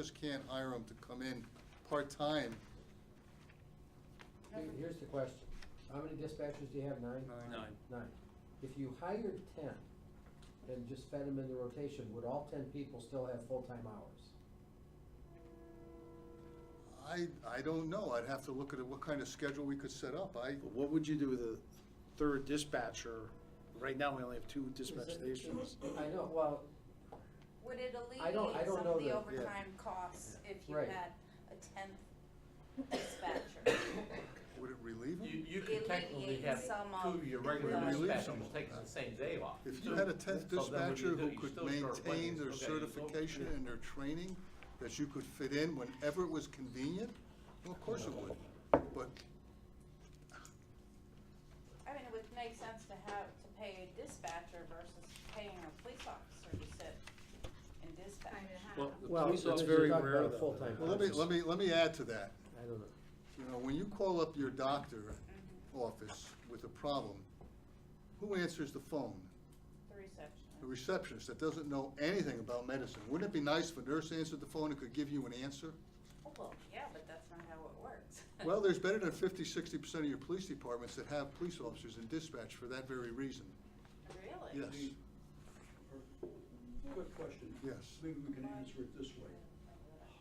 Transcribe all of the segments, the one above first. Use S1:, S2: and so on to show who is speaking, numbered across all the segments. S1: just can't hire them to come in part-time.
S2: Here- Here's the question. How many dispatchers do you have? Nine?
S3: Nine.
S2: Nine. If you hired ten and just fed them in the rotation, would all ten people still have full-time hours?
S1: I, I don't know, I'd have to look at what kind of schedule we could set up, I,
S3: But What would you do with a third dispatcher? Right now, we only have two dispatch
S2: Is it-
S3: stations.
S2: I know, well,
S4: Would it
S2: I
S4: alleviate
S2: don't- I don't
S4: some
S2: know
S4: of the
S2: that-
S4: overtime costs if you
S2: Right.
S4: had a tenth dispatcher?
S1: would it relieve
S5: You,
S1: them?
S5: you could technically
S4: Alleviate
S5: have
S4: some
S5: two
S4: of
S5: of your regular
S4: the-
S5: dispatchers taking the same day off.
S1: If you had a tenth
S5: So then what do
S1: dispatcher
S5: you do?
S1: who
S5: You
S1: could
S5: still short one,
S1: maintain
S5: you
S1: their
S5: still gotta use both.
S1: certification and their training, that you could fit in whenever it was convenient, well, of course it would. But
S4: I mean, it would make sense to have, to pay a dispatcher versus paying a police officer to sit and dispatch.
S3: Well, the
S2: Well,
S3: police, that's
S2: because you're
S3: very
S2: talking
S3: rare
S2: about a
S3: though.
S2: full-time
S1: Well, let me, let me, let me add to that.
S2: I don't know.
S1: You know, when you call up your doctor office with a problem, who answers the phone?
S4: The
S1: The receptionist
S4: receptionist.
S1: that doesn't know anything about medicine. Wouldn't it be nice if a nurse answered the phone and could give you an answer?
S4: Oh, well, yeah, but that's not how it works.
S1: Well, there's better than 50, 60% of your police departments that have police officers in dispatch for that very reason.
S4: Really?
S1: Yes,
S6: Quick question.
S1: Yes.
S6: Maybe we can answer it this way.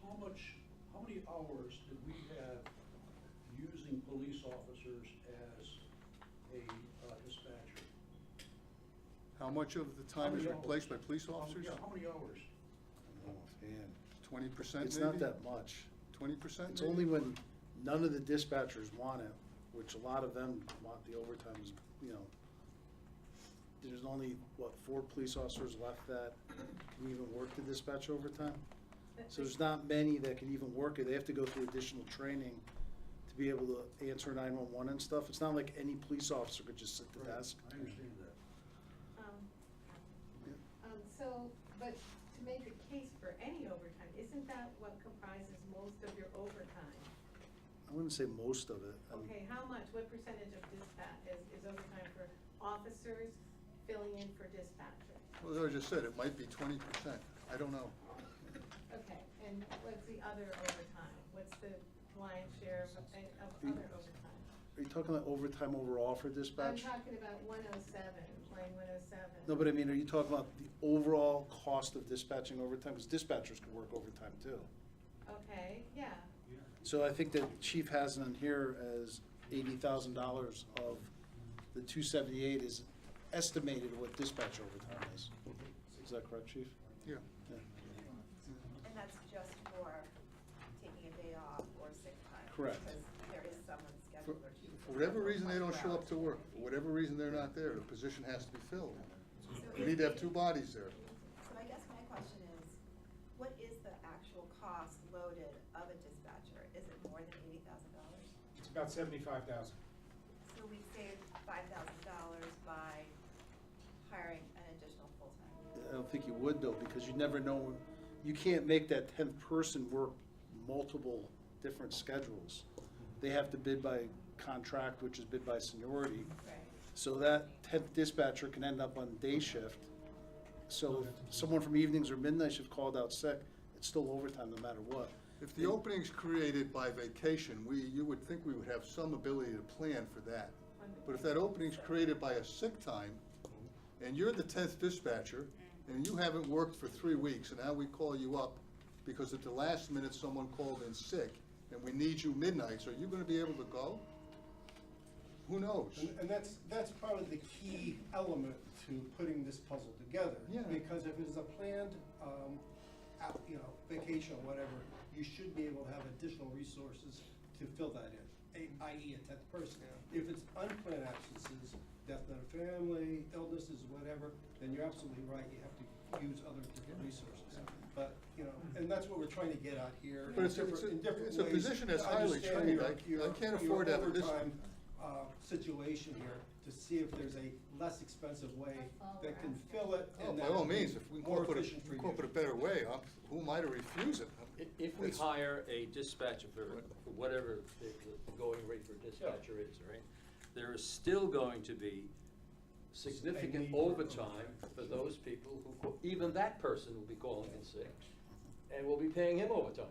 S6: How much, how many hours did we have using police officers as a uh, dispatcher?
S1: How much of the time is
S6: How many hours?
S1: replaced by police
S6: How-
S1: officers?
S6: Yeah, how many hours?
S1: Twenty percent
S3: Oh, It's
S1: maybe?
S3: not that much.
S1: Twenty percent?
S3: It's only when none of the dispatchers want it, which a lot of them want the overtime is, you know. There's only, what, four police officers left that can even work the dispatch overtime? So there's not many that can even work it. They have to go through additional training to be able to answer 911 and stuff. It's not like any police officer could just sit at the
S6: Right,
S3: desk.
S6: I understand that.
S7: Um, um, So, but to make a case for any overtime, isn't that what comprises most of your overtime?
S3: I wouldn't say most of it. Um, I mean,
S7: Okay, how much, what percentage of dispatch is, is overtime for officers filling in for dispatchers?
S1: Well, as I just said, it might be twenty percent. I don't know.
S7: Okay, and what's the other overtime? What's the lion's share of, of other overtime?
S3: Are you talking about overtime overall for
S7: I'm
S3: dispatch?
S7: talking about one oh seven, line one oh seven.
S3: No, but I mean, are you talking about the overall cost of dispatching overtime? Because dispatchers could work overtime too.
S7: Okay, yeah,
S3: So I think that chief has it in here as eighty thousand dollars of the two seventy-eight is estimated what dispatch overtime is. Is that correct, chief?
S1: Yeah.
S3: Yeah.
S4: And that's just for taking a day off or sick time.
S3: Correct.
S4: Because there is someone
S1: For
S4: scheduled or two.
S1: for whatever reason, they don't show up to work. For whatever reason, they're not there. The position has to be filled. You need to have two bodies there.
S8: So I guess my question is, what is the actual cost loaded of a dispatcher? Is it more than eighty thousand dollars?
S9: It's about seventy-five thousand.
S8: So we save five thousand dollars by hiring an additional full-time.
S3: I don't think you would though, because you never know, you can't make that tenth person work multiple different schedules. They have to bid by contract, which is bid by seniority.
S8: Right.
S3: So that tenth dispatcher can end up on day shift. So if someone from evenings or midnight shift called out sick, it's still overtime no matter what.
S1: If the opening's created by vacation, we, you would think we would have some ability to plan for that. But if that opening's created by a sick time, and you're the tenth dispatcher, and you haven't worked for three weeks, and now we call you up because at the last minute someone called in sick, and we need you midnights, are you gonna be able to go? Who knows?
S9: And, and that's, that's probably the key element to putting this puzzle together.
S1: Yeah.
S9: Because if it's a planned, um, out, you know, vacation or whatever, you should be able to have additional resources to fill that in, a- i.e. a tenth person. If it's unplanned absences, death in the family, illnesses, whatever, then you're absolutely right, you have to use other different resources. But, you know, and that's what we're trying to get at here.
S1: But it's a-
S9: in different- in
S1: it's a-
S9: different
S1: it's a
S9: ways
S1: position that's
S9: to
S1: highly
S9: understand
S1: trained. I-
S9: your-
S1: I
S9: your-
S1: can't
S9: your
S1: afford to have this-
S9: overtime uh, situation here to see if there's a less expensive way
S7: That's all
S9: that
S7: we're
S9: can
S7: asking.
S9: fill it
S1: Oh,
S9: and
S1: By
S9: that
S1: all
S9: would be
S1: means, if we
S9: more
S1: can put a,
S9: efficient for you.
S1: incorporate a better way, I'm- who am I to refuse it?
S5: I- If we
S1: It's-
S5: hire a dispatcher for for whatever the the going rate for dispatcher is, right? There is still going to be
S9: A need
S5: significant
S9: for
S5: overtime for those people who, ca- even that person will be calling in sick. and we'll be paying him overtime.